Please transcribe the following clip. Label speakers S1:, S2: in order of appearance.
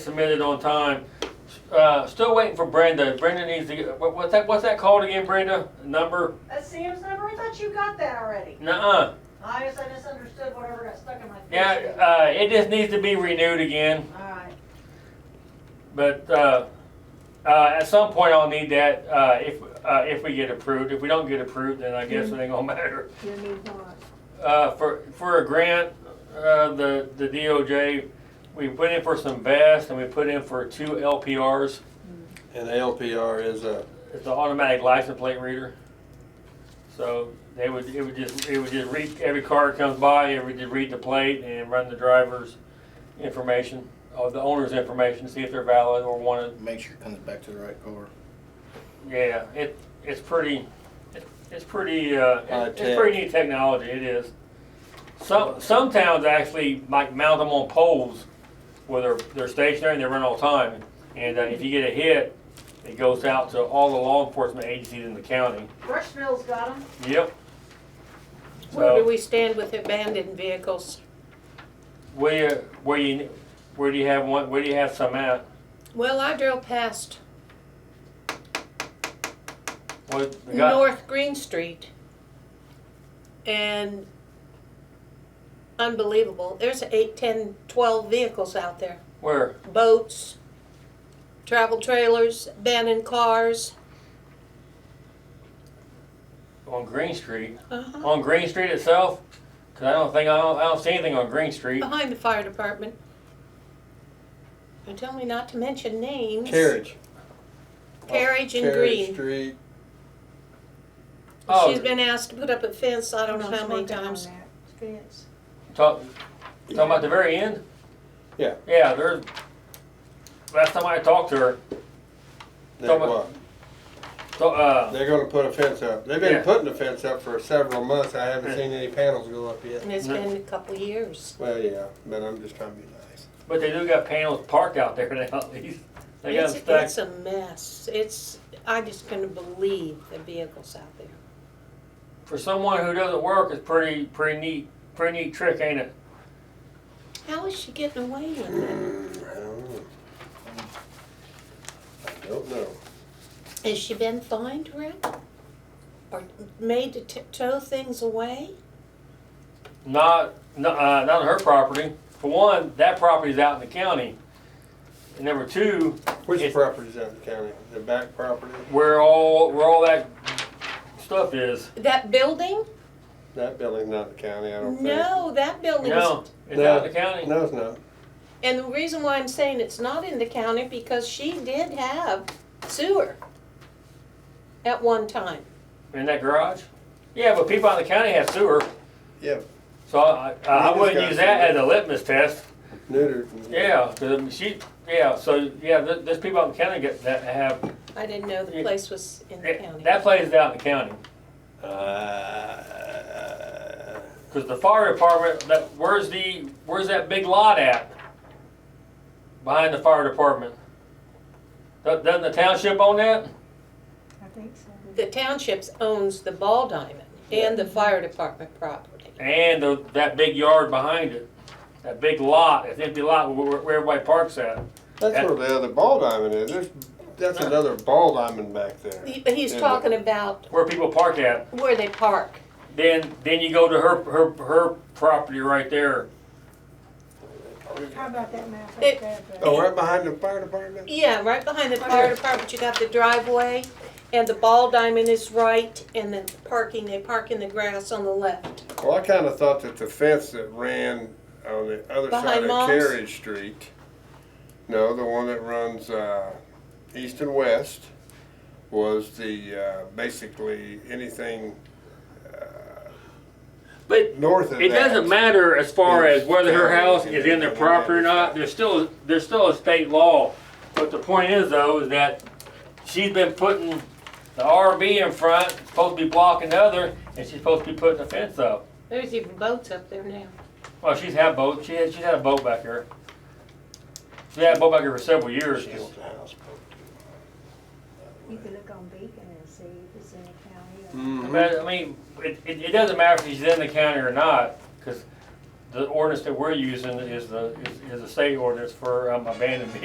S1: submitted on time. Uh, still waiting for Brenda. Brenda needs to get, what, what's that, what's that called again, Brenda? Number?
S2: That's Sam's number? I thought you got that already.
S1: Nuh-uh.
S2: I guess I misunderstood whatever got stuck in my face.
S1: Yeah, uh, it just needs to be renewed again,
S2: Alright,
S1: but, uh, uh, at some point I'll need that, uh, if, uh, if we get approved. If we don't get approved, then I guess it ain't gonna matter.
S2: you need one.
S1: Uh, for, for a grant, uh, the, the DOJ, we put in for some vests and we put in for two LPRs.
S3: And LPR is a,
S1: It's an automatic license plate reader. So they would, it would just, it would just read, every car that comes by, it would just read the plate and run the driver's information, or the owner's information, see if they're valid or wanted.
S4: Make sure it comes back to the right car.
S1: Yeah, it, it's pretty, it- it's pretty, uh, it's
S3: High-tech.
S1: it's pretty neat technology, it is. Some, some towns actually like mount them on poles where they're, they're stationary and they run all the time. And uh, if you get a hit, it goes out to all the law enforcement agencies in the county.
S2: Brushville's got them.
S1: Yep.
S5: Where do
S1: So,
S5: we stand with abandoned vehicles?
S1: where, where you, where do you have one, where do you have some at?
S5: Well, I drove past
S1: What, we got,
S5: North Green Street and unbelievable, there's eight, ten, twelve vehicles out there.
S1: where?
S5: Boats, travel trailers, abandoned cars.
S1: On Green Street?
S5: Uh-huh.
S1: On Green Street itself? Cause I don't think, I don't, I don't see anything on Green Street.
S5: Behind the fire department. And tell me not to mention names.
S3: carriage.
S5: Carriage and
S3: Carriage
S5: Green.
S3: Street,
S1: Oh.
S5: She's been asked to put up a fence, I don't know how many times.
S1: Talk, talking about the very end?
S3: Yeah.
S1: Yeah, there's, last time I talked to her,
S3: they
S1: Talking
S3: what?
S1: so, uh,
S3: They're gonna put a fence up. They've
S1: Yeah.
S3: been putting a fence up for several months. I haven't
S1: Yeah.
S3: seen any panels go up yet.
S5: And it's
S1: No.
S5: been a couple years.
S3: Well, yeah, but I'm just trying to be nice.
S1: but they do got panels parked out there now, at least. They got
S5: It's,
S1: them
S5: it's
S1: stacked.
S5: a mess. It's, I just couldn't believe the vehicles out there.
S1: For someone who doesn't work, it's pretty, pretty neat, pretty neat trick, ain't it?
S5: How is she getting away with it?
S3: Mm, I don't know. I don't know.
S5: Has she been fined, Rick? Or made to t- tow things away?
S1: Not, no- uh, not on her property. For one, that property's out in the county. And number two,
S3: Which
S1: It's-
S3: property's out in the county? The back property?
S1: where all, where all that stuff is.
S5: That building?
S3: That building's not in the county, I don't think.
S5: No, that building
S1: No,
S5: is,
S1: it's out in the county.
S3: No, it's not.
S5: and the reason why I'm saying it's not in the county because she did have sewer at one time.
S1: In that garage? Yeah, but people out in the county have sewer.
S3: Yeah.
S1: So I, I, I
S3: We
S1: wouldn't
S3: discussed
S1: use that
S3: it.
S1: as a litmus test.
S3: Neutered.
S1: Yeah, 'cause, um, she, yeah, so, yeah, th- there's people out in the county get, that have,
S5: I didn't know the
S1: Yeah.
S5: place was in the county.
S1: that place is out in the county.
S3: Uh,
S1: Cause the fire department, that, where's the, where's that big lot at? Behind the fire department? Do- Doesn't the township own that?
S2: I think so.
S5: The township owns the ball diamond and the fire department property.
S1: And the, that big yard behind it? That big lot, that empty lot where, where everybody parks at?
S3: That's
S1: Yeah.
S3: where the other ball diamond is. There's, that's
S1: Yeah.
S3: another ball diamond back there.
S5: He- He's
S3: Yeah.
S5: talking about
S1: Where people park at?
S5: where they park.
S1: Then, then you go to her, her, her property right there.
S6: How about that map
S5: It-
S6: up there? but-
S3: Oh, right behind the fire department?
S5: Yeah, right behind the fire department, you got the driveway, and the ball diamond is right, and then parking, they park in the grass on the left.
S3: Well, I kind of thought that the fence that ran on the other side
S5: Behind
S3: of
S5: Mom's?
S3: Carriage Street, no, the one that runs uh, east and west, was the uh, basically anything
S1: But
S3: north of
S1: It
S3: that.
S1: doesn't matter as far as whether her house is in their
S3: Yeah.
S1: property or not, there's still, there's still a state law. But the point is though, is that she's been putting the RV in front, supposed to be blocking the other, and she's supposed to be putting a fence up.
S5: There's even boats up there now.
S1: Well, she's had boat, she had, she's had a boat back here. She had a boat back here for several years.
S3: Shield House.
S6: You could look on Beacon and see if it's in the county. or-
S3: Mm.
S1: But, I mean, it, it, it doesn't matter if she's in the county or not, cause the ordinance that we're using is the, is, is a state ordinance for um, abandoned